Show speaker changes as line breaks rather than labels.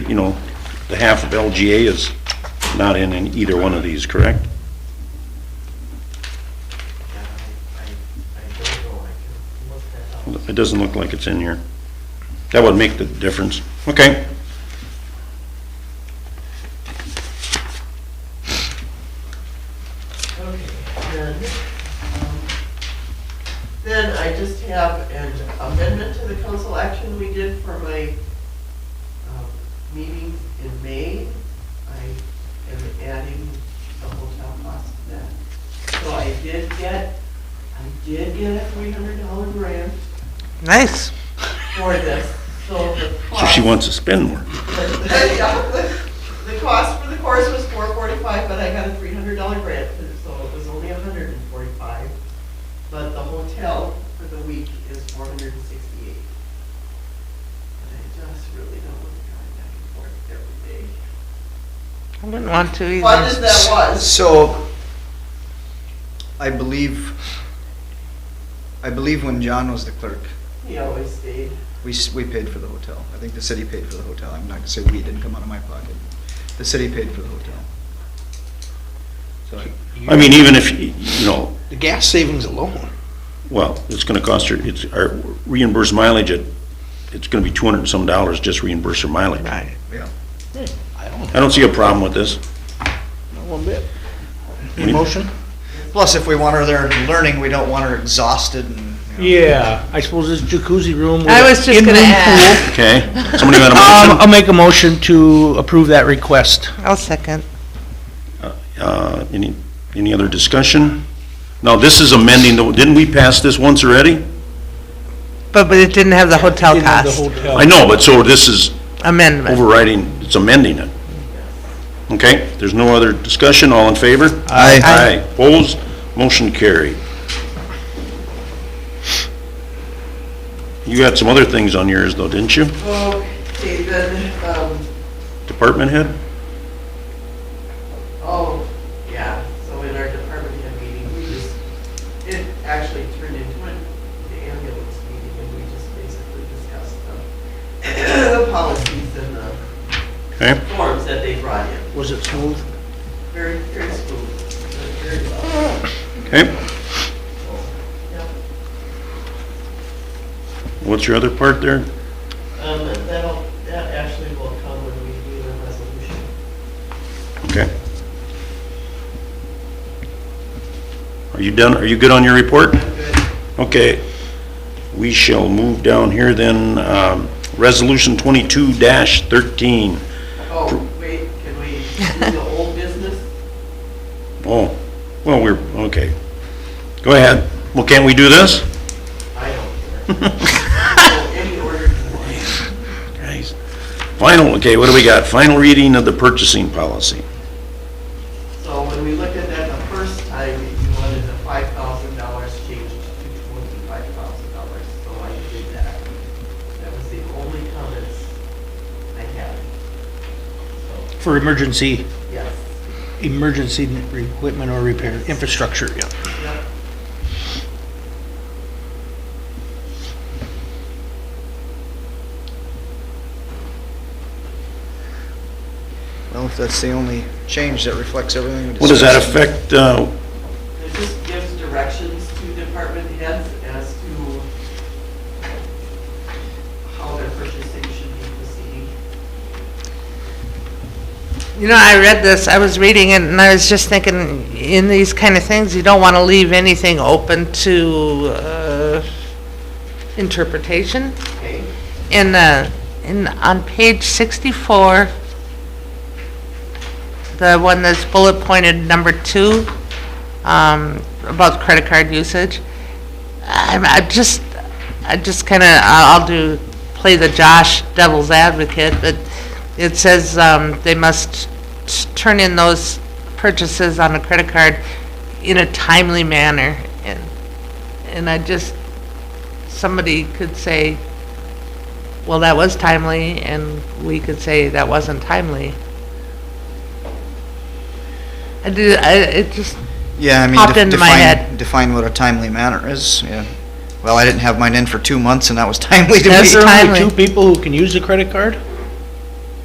you know, the half of LGA is not in, in either one of these, correct?
I, I, I don't know, I can look that up.
It doesn't look like it's in here. That would make the difference. Okay.
Okay, then, um, then I just have an amendment to the council action we did for my um, meeting in May. I am adding the hotel cost to that. So I did get, I did get a three hundred dollar grant
Nice.
for this, so the
So
cost.
she wants to spend more.
Yeah, The the cost for the course was four forty-five, but I got a three hundred dollar grant, so it was only a hundred and forty-five. But the hotel for the week is four hundred and sixty-eight. And I just really don't want to drive back and forth every day.
I wouldn't want to either.
Fun as that was,
So, I believe, I believe when John was the clerk,
he always stayed.
we, s- we paid for the hotel. I think the city paid for the hotel. I'm not gonna say we, it didn't come out of my pocket. The city paid for the hotel. So, I-
I mean, even if, you know,
The gas savings alone.
well, it's gonna cost her, it's, our reimbursed mileage at, it's gonna be two hundred and some dollars just reimburse her mileage.
Right.
yeah.
I don't,
I don't see a problem with this.
not one bit.
Any-
Motion?
Plus, if we want her there learning, we don't want her exhausted and, you know.
Yeah, I suppose this jacuzzi room.
I was just gonna add.
Okay, somebody got a
Um,
motion?
I'll make a motion to approve that request.
I'll second.
Uh, any, any other discussion? Now, this is amending, the didn't we pass this once already?
But, but it didn't have the hotel
Didn't have the
cost
hotel.
I know, but so this is
amendment.
overriding, it's amending it. Okay, there's no other discussion, all in favor?
Aye.
Aye, opposed, motion carried. You got some other things on yours though, didn't you?
Okay, then, um,
Department head?
Oh, yeah, so in our department head meeting, we just, it actually turned into an ambulance meeting, and we just basically discussed the, the policies and the
Okay,
forms that they brought in,
Was it smooth?
very, very smooth, very well.
okay.
Yeah.
What's your other part there?
Um, and that'll, that actually will come when we do the resolution.
Okay. Are you done, are you good on your report?
Good.
Okay, we shall move down here then, um, resolution twenty-two thirteen.
Oh, wait, can we do the old business?
Oh, well, we're, okay. Go ahead. Well, can't we do this?
I don't care. So, Any order you want.
Guys. Final, okay, what do we got? Final reading of the purchasing policy.
So when we looked at that the first time, you wanted the five thousand dollars changed to twenty-five thousand dollars, so I did that. That was the only comments I had. So,
For emergency,
yes,
emergency equipment or repair, infrastructure, yeah.
yep.
Well, if that's the only change that reflects everything we
Well, does that
discussed.
affect, uh,
It just gives directions to department heads as to how their purchasing should be proceeding.
You know, I read this, I was reading it, and I was just thinking, in these kind of things, you don't want to leave anything open to, uh, interpretation.
Okay,
in, uh, in, on page 64, the one that's bullet pointed number two, um, about credit card usage, I'm, I just, I just kind of, I'll do, play the Josh devil's advocate, but it says, um, they must s- turn in those purchases on a credit card in a timely manner. And, and I just, somebody could say, well, that was timely, and we could say that wasn't timely. I did, I, it just,
Yeah, I mean,
popped
de-
into my
define,
head.
define what a timely manner is, yeah. Well, I didn't have mine in for two months and that was timely to me.
That's
Is there
timely.
only two people who can use the credit card?